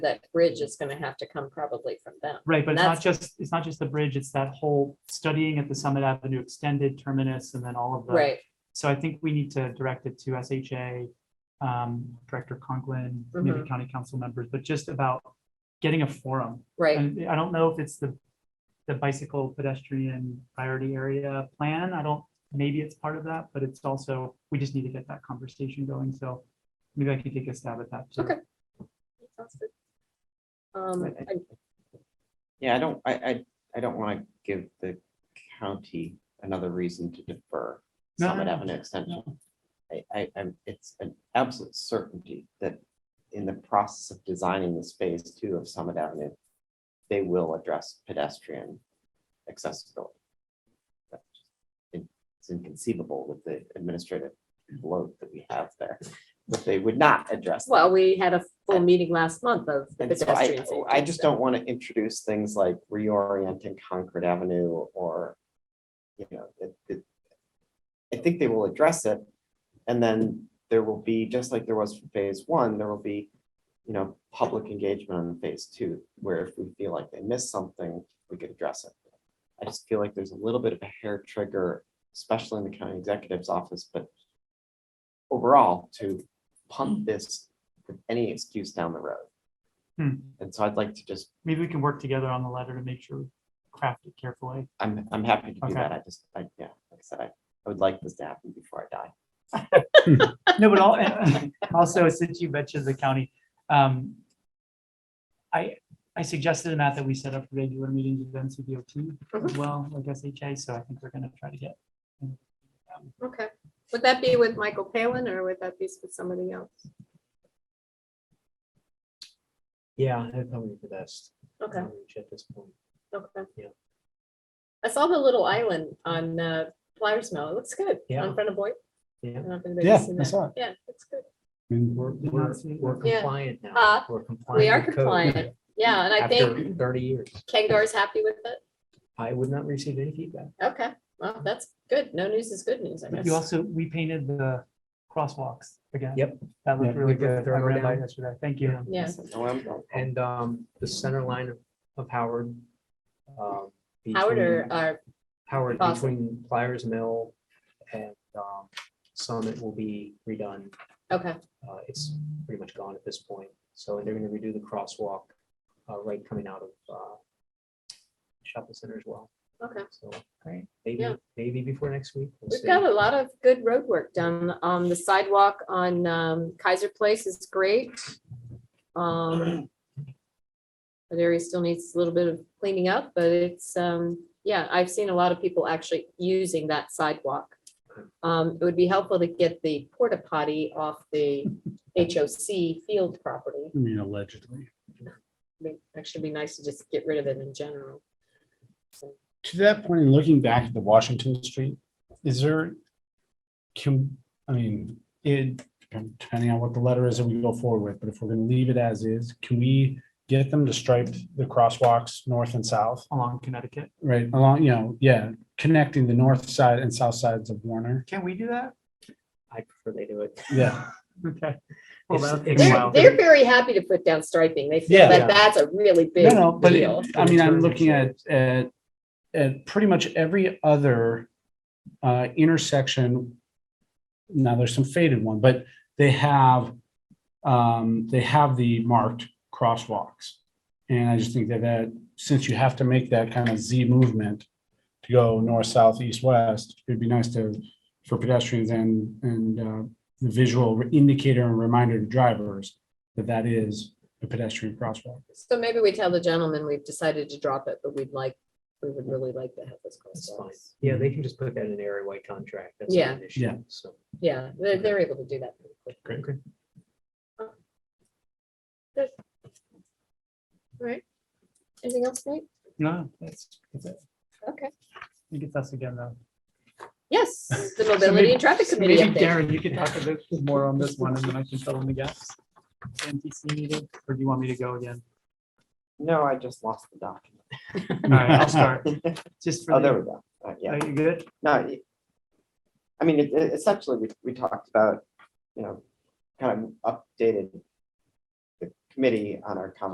that bridge is gonna have to come probably from them. Right, but it's not That's- just, it's not just the bridge, it's that whole studying at the Summit Avenue Extended Terminus and then all of the. Right, So I think we need to direct it to SHA, um, Director Conklin, maybe Mhm. county council members, but just about getting a forum. right, And I don't know if it's the, the bicycle pedestrian priority area plan. I don't, maybe it's part of that, but it's also, we just need to get that conversation going. So maybe I could take a stab at that. too. Okay. Sounds good. Um, I- Yeah, I don't, I, I, I don't want to give the county another reason to defer No, no, Summit no. Avenue extension. I, I, I'm, it's an absolute certainty that in the process of designing this phase two of Summit Avenue, they will address pedestrian accessibility. That's just in- It's inconceivable with the administrative load that we have there, that they would not address. that. well, we had a full meeting last month of the And so I, oh, pedestrian safety. I just don't want to introduce things like reorienting Concord Avenue or, you know, it, it. I think they will address it, and then there will be, just like there was for phase one, there will be, you know, public engagement on phase two, where if we feel like they missed something, we could address it. I just feel like there's a little bit of a hair trigger, especially in the county executive's office, but overall, to pump this with any excuse down the road. Hmm. And so I'd like to just, Maybe we can work together on the letter to make sure we craft it carefully. I'm, I'm happy to do Okay. that. I just, I, yeah, like I said, I, I would like this to happen before I die. No, but all, and also, since you mentioned the county, um, I, I suggested, Matt, that we set up regular meetings with NCDOT Mm-hmm. as well, like SHA, so I think we're gonna try to get. Okay, would that be with Michael Palin or would that be with somebody else? Yeah, I have nobody for this. Okay, outreach At this point. okay. Yeah. I saw the little island on uh, Flyers Mill. It looks good. Yeah. On front of Boyd. Yeah. Yeah, I saw it. Yeah, it's good. I mean, We're, Did not we're, see we're that. Yeah. compliant now. Uh, We're compliant. We are with code compliant. Yeah, and I think After thirty years, Kangar's happy with it. I would not receive any feedback. Okay, well, that's good. No news is good news, I But You guess. also, we painted the crosswalks again. Yep. That looked Yeah, really we got good. I thorough ran by down. yesterday. Thank you. Yeah. Yeah, So no, I'm- I'm- I'm- And, um, the center line of- of Howard. um, Howard or, uh, between- or, Howard Fawcett? between Pliers Mill and, um, Summit will be redone. okay, Uh, it's pretty much gone at this point. So they're gonna redo the crosswalk, uh, right coming out of, uh, shopping center as well. okay. So. Great. Maybe, Yeah. maybe before next week. we'll We've see. got a lot of good road work done. Um, the sidewalk on um, Kaiser Place is great. Um, That area still needs a little bit of cleaning up, but it's, um, yeah, I've seen a lot of people actually using that sidewalk. Um, it would be helpful to get the porta potty off the HOC field property. I mean, allegedly. I mean, Actually, it'd be nice to just get rid of it in general. So, To that point, in looking back at the Washington Street, is there, can, I mean, it, depending on what the letter is that we go forward with, but if we're gonna leave it as is, can we get them to stripe the crosswalks north and south? Along Connecticut. Right, along, you know, yeah, connecting the north side and south sides of Warner. Can we do that? I prefer they do it. Yeah. Okay. Well, It's- that'll take a it's- They're, while. they're very happy to put down striping. They feel Yeah. that that's a really big No, no, but it- deal. I mean, I'm Return looking at, insurance. at, at pretty much every other uh, intersection. Now, there's some faded one, but they have, um, they have the marked crosswalks. And I just think that that, since you have to make that kind of Z movement to go north, south, east, west, it'd be nice to, for pedestrians and, and uh, the visual indicator and reminder to drivers that that is a pedestrian crosswalk. So maybe we tell the gentleman we've decided to drop it, but we'd like, we would really like to have this That's fine. crosswalks. Yeah, they can just put that in their area white contract. That's Yeah. not an issue. Yeah. So Yeah, they're, they're able to do that. pretty quick. Great. Right? Anything else, Nate? No, that's, that's it. Okay. You get us again, though. Yes, the So mobility maybe- and traffic so committee Maybe update. Darren, you could talk a bit more on this one and then I can fill in the gaps. NTC meeting, or do you want me to go again? No, I just lost the document. All right, I'll start. Just for Oh, there the, we go. Uh, Yeah, are you good? no. it- I mean, it- it- essentially, we, we talked about, you know, kind of updated the committee on our conversation